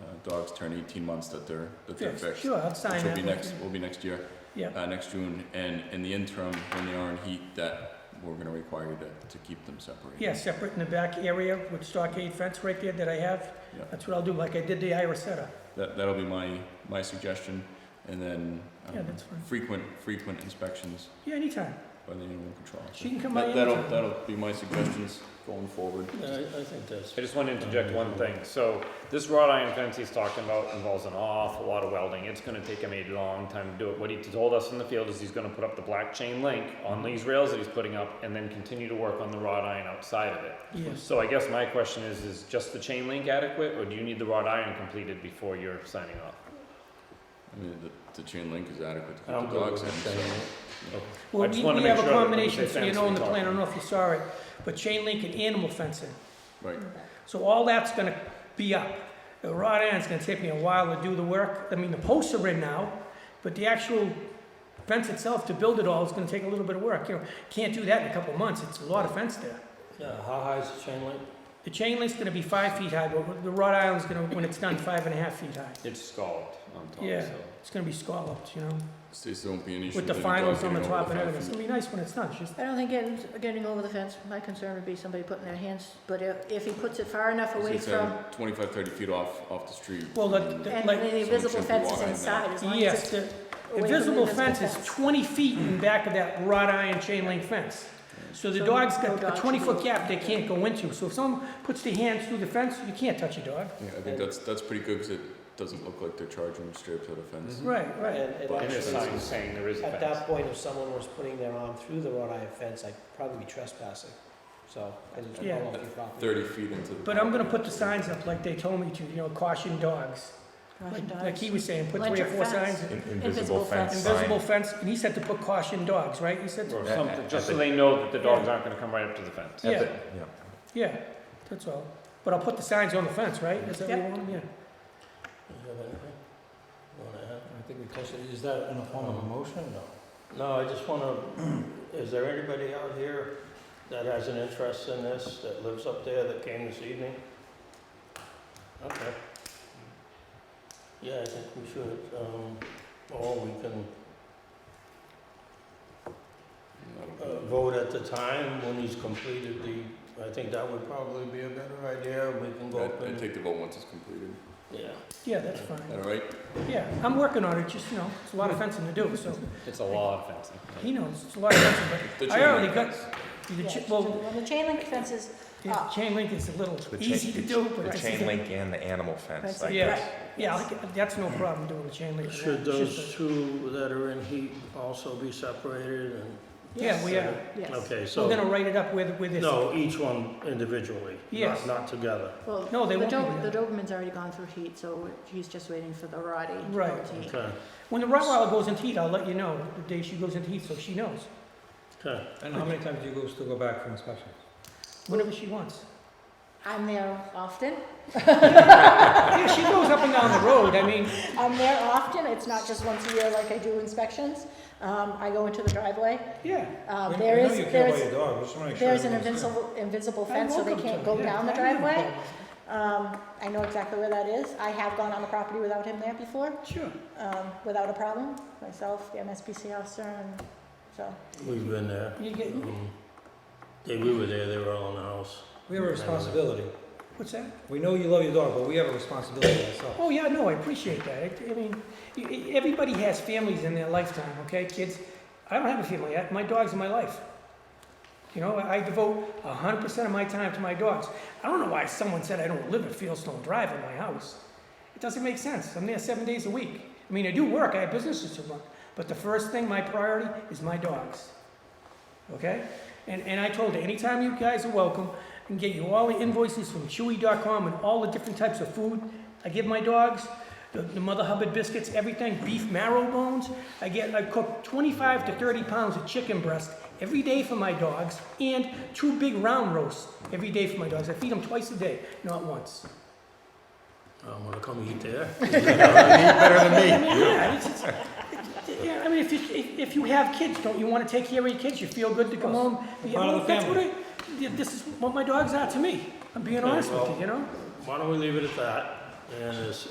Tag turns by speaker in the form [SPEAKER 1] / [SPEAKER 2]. [SPEAKER 1] Uh, dogs turn eighteen months that they're, that they're
[SPEAKER 2] Yes,
[SPEAKER 1] fixed.
[SPEAKER 2] Sure, I'll sign
[SPEAKER 1] Which
[SPEAKER 2] that.
[SPEAKER 1] will be
[SPEAKER 2] with
[SPEAKER 1] next,
[SPEAKER 2] you.
[SPEAKER 1] will be next year,
[SPEAKER 2] Yeah,
[SPEAKER 1] uh, next June, and in the interim, when they are in heat, that we're gonna require you to, to keep them separated.
[SPEAKER 2] yeah, separate in the back area with stockade fence right there that I have.
[SPEAKER 1] Yeah.
[SPEAKER 2] That's what I'll do, like I did the Ira setter.
[SPEAKER 1] That, that'll be my, my suggestion, and then, I
[SPEAKER 2] Yeah,
[SPEAKER 1] don't know,
[SPEAKER 2] that's fine.
[SPEAKER 1] frequent, frequent inspections
[SPEAKER 2] Yeah, anytime.
[SPEAKER 1] by the animal control officer.
[SPEAKER 2] She can come by
[SPEAKER 1] That, that'll,
[SPEAKER 2] anytime.
[SPEAKER 1] that'll be my suggestions going forward.
[SPEAKER 3] Yeah, I, I think that's.
[SPEAKER 4] I just want to interject one thing. So this wrought iron fence he's talking about involves an awful lot of welding. It's gonna take him a long time to do it. What he told us in the field is he's gonna put up the black chain link on these rails that he's putting up and then continue to work on the wrought iron outside of it.
[SPEAKER 2] Yes.
[SPEAKER 4] So I guess my question is, is just the chain link adequate or do you need the wrought iron completed before you're signing off?
[SPEAKER 1] I mean, the, the chain link is adequate to keep
[SPEAKER 3] I don't
[SPEAKER 1] the
[SPEAKER 3] go
[SPEAKER 1] dogs
[SPEAKER 3] with
[SPEAKER 1] in,
[SPEAKER 3] the
[SPEAKER 1] so.
[SPEAKER 3] chain link.
[SPEAKER 2] Well,
[SPEAKER 4] just
[SPEAKER 2] we-
[SPEAKER 4] wanna make
[SPEAKER 2] We have
[SPEAKER 4] sure
[SPEAKER 2] a
[SPEAKER 4] that when we
[SPEAKER 2] combination,
[SPEAKER 4] say
[SPEAKER 2] so you
[SPEAKER 4] fence,
[SPEAKER 2] know
[SPEAKER 4] we
[SPEAKER 2] in the
[SPEAKER 4] talk
[SPEAKER 2] plan, I don't know
[SPEAKER 4] about
[SPEAKER 2] if you saw it, but chain link and animal fencing.
[SPEAKER 1] Right,
[SPEAKER 2] So all that's gonna be up. The rod iron's gonna take me a while to do the work. I mean, the posts are in now, but the actual fence itself, to build it all, is gonna take a little bit of work. You know, can't do that in a couple of months. It's a lot of fence there.
[SPEAKER 3] Yeah, how high is the chain link?
[SPEAKER 2] The chain link's gonna be five feet high, but the wrought iron's gonna, when it's done, five and a half feet high.
[SPEAKER 4] It's scalloped on top,
[SPEAKER 2] Yeah.
[SPEAKER 4] so.
[SPEAKER 2] It's gonna be scalloped, you know,
[SPEAKER 1] states there won't be an issue.
[SPEAKER 2] with the
[SPEAKER 1] with any
[SPEAKER 2] finals
[SPEAKER 1] dogs
[SPEAKER 2] on the
[SPEAKER 1] getting over
[SPEAKER 2] top and
[SPEAKER 1] five
[SPEAKER 2] everything. It's
[SPEAKER 1] feet.
[SPEAKER 2] gonna be nice when it's done. It's just,
[SPEAKER 5] I don't think getting, getting over the fence, my concern would be somebody putting their hands, but if, if he puts it far enough
[SPEAKER 1] So
[SPEAKER 5] away
[SPEAKER 1] it's, um,
[SPEAKER 5] from,
[SPEAKER 1] 25, thirty feet off, off the street.
[SPEAKER 2] Well, the-
[SPEAKER 1] and-
[SPEAKER 2] the-
[SPEAKER 5] and
[SPEAKER 2] like-
[SPEAKER 5] then the invisible
[SPEAKER 1] Someone
[SPEAKER 5] fence
[SPEAKER 1] should
[SPEAKER 5] is
[SPEAKER 1] be
[SPEAKER 5] inside, as long
[SPEAKER 2] yes,
[SPEAKER 5] as
[SPEAKER 2] the
[SPEAKER 5] it's away from the
[SPEAKER 2] invisible
[SPEAKER 5] invisible
[SPEAKER 2] fence is twenty feet in back of that wrought iron chain link fence. So the
[SPEAKER 5] So
[SPEAKER 2] dog's
[SPEAKER 5] no
[SPEAKER 2] got
[SPEAKER 5] dog
[SPEAKER 2] a
[SPEAKER 5] should
[SPEAKER 2] twenty foot
[SPEAKER 5] be-
[SPEAKER 2] gap they can't go into. So if someone puts their hands through the fence, you can't touch your dog.
[SPEAKER 1] Yeah, I think that's, that's pretty good, cause it doesn't look like they're charging straight up to the fence.
[SPEAKER 2] Right, right.
[SPEAKER 3] And, and
[SPEAKER 1] But
[SPEAKER 4] And there's
[SPEAKER 3] actually,
[SPEAKER 4] signs saying there is a
[SPEAKER 3] at that
[SPEAKER 4] fence.
[SPEAKER 3] point, if someone was putting their arm through the wrought iron fence, I'd probably be trespassing. So, and it's
[SPEAKER 2] Yeah.
[SPEAKER 3] well off your property.
[SPEAKER 1] Thirty feet into the.
[SPEAKER 2] But I'm gonna put the signs up like they told me to, you know, caution dogs. Like like he was saying, put three or
[SPEAKER 5] Electric
[SPEAKER 2] four
[SPEAKER 5] fence.
[SPEAKER 2] signs,
[SPEAKER 5] Invisible fence.
[SPEAKER 2] invisible fence, and he said to put caution dogs, right? He said,
[SPEAKER 4] Or
[SPEAKER 6] At-
[SPEAKER 4] something,
[SPEAKER 6] at
[SPEAKER 4] just
[SPEAKER 6] the-
[SPEAKER 4] so they know that the dogs aren't gonna come right up to the fence.
[SPEAKER 2] yeah,
[SPEAKER 6] Yeah.
[SPEAKER 2] yeah, that's all. But I'll put the signs on the fence, right? Is that what you
[SPEAKER 5] Yep.
[SPEAKER 2] want? Yeah.
[SPEAKER 3] You have anything? You wanna add?
[SPEAKER 6] I think we touched it. Is that in the form of a motion? No.
[SPEAKER 3] Um, No, I just want to, is there anybody out here that has an interest in this, that lives up there, that came this evening? Okay. Yeah, I think we should, um, or we can uh, vote at the time when he's completed the, I think that would probably be a better idea, we can go up
[SPEAKER 1] I, I
[SPEAKER 3] and,
[SPEAKER 1] take the vote once it's completed,
[SPEAKER 3] yeah.
[SPEAKER 2] Yeah, that's
[SPEAKER 1] Is
[SPEAKER 2] fine.
[SPEAKER 1] that all right?
[SPEAKER 2] Yeah, I'm working on it, just, you know, it's a lot of fencing to do, so
[SPEAKER 4] It's a lot of fencing.
[SPEAKER 2] he knows, it's a lot of fencing,
[SPEAKER 1] The
[SPEAKER 2] I
[SPEAKER 1] chain
[SPEAKER 2] already
[SPEAKER 1] link
[SPEAKER 2] got-
[SPEAKER 1] fence.
[SPEAKER 2] but the,
[SPEAKER 5] Yeah,
[SPEAKER 2] chi- well,
[SPEAKER 5] well, the chain link fence is, Ah.
[SPEAKER 2] the chain link is a little
[SPEAKER 6] The chain-
[SPEAKER 2] easy to
[SPEAKER 6] the-
[SPEAKER 2] do, but
[SPEAKER 6] The
[SPEAKER 2] it's-
[SPEAKER 6] chain link and the animal fence,
[SPEAKER 5] Fence,
[SPEAKER 6] like
[SPEAKER 2] yeah.
[SPEAKER 6] this.
[SPEAKER 2] Yeah, I can- that's no problem doing the chain link.
[SPEAKER 3] Should
[SPEAKER 2] It's just
[SPEAKER 3] those
[SPEAKER 2] a-
[SPEAKER 3] two that are in heat also be separated and?
[SPEAKER 2] Yeah, we are,
[SPEAKER 5] yes.
[SPEAKER 3] Okay, so.
[SPEAKER 2] we're gonna write it up with, with this.
[SPEAKER 3] No, each one individually,
[SPEAKER 2] Yes.
[SPEAKER 3] not, not together.
[SPEAKER 5] Well,
[SPEAKER 2] No, they
[SPEAKER 5] the
[SPEAKER 2] won't be
[SPEAKER 5] Doberman, the
[SPEAKER 2] together.
[SPEAKER 5] Doberman's already gone through heat, so he's just waiting for the Roddy to go
[SPEAKER 2] Right.
[SPEAKER 5] to heat.
[SPEAKER 3] Okay,
[SPEAKER 2] When the Rottweiler goes into heat, I'll let you know the day she goes into heat, so she knows,
[SPEAKER 3] okay.
[SPEAKER 6] And how many times do you go still go back for inspection?
[SPEAKER 2] whenever she wants.
[SPEAKER 5] I'm there often,
[SPEAKER 2] Yeah, she goes up and down the road, I mean,
[SPEAKER 5] I'm there often, it's not just once a year like I do inspections. Um, I go into the driveway,
[SPEAKER 2] yeah,
[SPEAKER 5] uh, there is, there is,
[SPEAKER 6] dog, just wanna make
[SPEAKER 5] there's an invincible, invincible
[SPEAKER 2] I
[SPEAKER 5] fence, so they
[SPEAKER 2] welcome
[SPEAKER 5] can't
[SPEAKER 2] to,
[SPEAKER 5] go
[SPEAKER 2] yeah,
[SPEAKER 5] down the
[SPEAKER 2] I have no
[SPEAKER 5] driveway.
[SPEAKER 2] problem.
[SPEAKER 5] Um, I know exactly where that is, I have gone on the property without him there before,
[SPEAKER 2] sure.
[SPEAKER 5] um, without a problem, myself, the MSPC officer, and so.
[SPEAKER 3] We've been there.
[SPEAKER 2] You get,
[SPEAKER 3] Um, They, we were there, they were all in the house. uh,
[SPEAKER 6] We have a responsibility.
[SPEAKER 2] what's that?
[SPEAKER 6] We know you love your dog, but we have a responsibility ourselves.
[SPEAKER 2] Oh, yeah, no, I appreciate that. I, I mean, y- y- everybody has families in their lifetime, okay, kids? I don't have a family. I, my dog's in my life. You know, I devote 100% of my time to my dogs. I don't know why someone said I don't live at Fieldstone Drive in my house. It doesn't make sense. I'm there seven days a week. I mean, I do work, I have businesses to run, but the first thing, my priority, is my dogs. Okay? And, and I told her, anytime you guys are welcome, I can get you all the invoices from Chewy.com and all the different types of food. I give my dogs the, the Mother Hubbard biscuits, everything, beef marrow bones. I get, I cook 25 to 30 pounds of chicken breast every day for my dogs and two big round roasts every day for my dogs. I feed them twice a day, not once.
[SPEAKER 3] I'm gonna come eat there.
[SPEAKER 2] I mean, yeah, it's, it's, yeah, I mean, if you, if, if you have kids, don't you wanna take care of your kids? You feel good to come home? Yeah,
[SPEAKER 6] part of
[SPEAKER 2] well,
[SPEAKER 6] the
[SPEAKER 2] that's what I- yeah, This is what my dogs are to me. I'm being
[SPEAKER 3] Okay,
[SPEAKER 2] honest with
[SPEAKER 3] well-
[SPEAKER 2] you, you know?
[SPEAKER 3] Why don't we leave it at that? And as,